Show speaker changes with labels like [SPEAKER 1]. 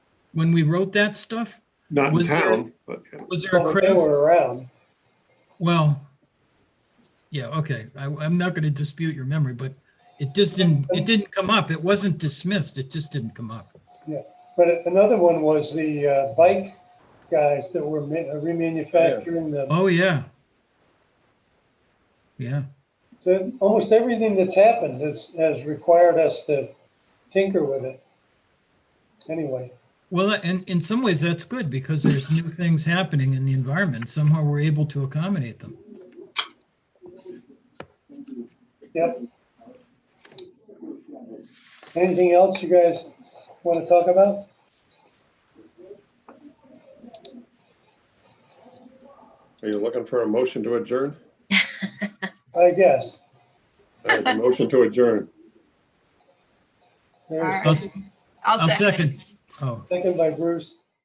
[SPEAKER 1] when we wrote that stuff?
[SPEAKER 2] Not in
[SPEAKER 1] Was there-
[SPEAKER 2] town, but yeah.
[SPEAKER 1] Was there a
[SPEAKER 3] Well, Oh, They
[SPEAKER 1] craft?
[SPEAKER 3] were around.
[SPEAKER 1] Well, yeah, okay. I, I'm not going to dispute your memory, but it just didn't, it didn't come up. It wasn't dismissed. It just didn't come up.
[SPEAKER 3] But another one was the uh, bike guys that were ma- remanufacturing the,
[SPEAKER 1] Oh, yeah. Yeah,
[SPEAKER 3] so almost everything that's happened has, has required us to tinker with it. Anyway,
[SPEAKER 1] well, and in some ways that's good because there's new things happening in the environment. Somehow we're able to accommodate them.
[SPEAKER 3] yep. Anything else you guys want to talk about?
[SPEAKER 2] Are you looking for a motion to adjourn?
[SPEAKER 3] I guess.
[SPEAKER 2] I have a motion to adjourn.
[SPEAKER 3] There's
[SPEAKER 1] I'll,
[SPEAKER 3] a
[SPEAKER 1] s- I'll second. Oh,
[SPEAKER 3] second by Bruce.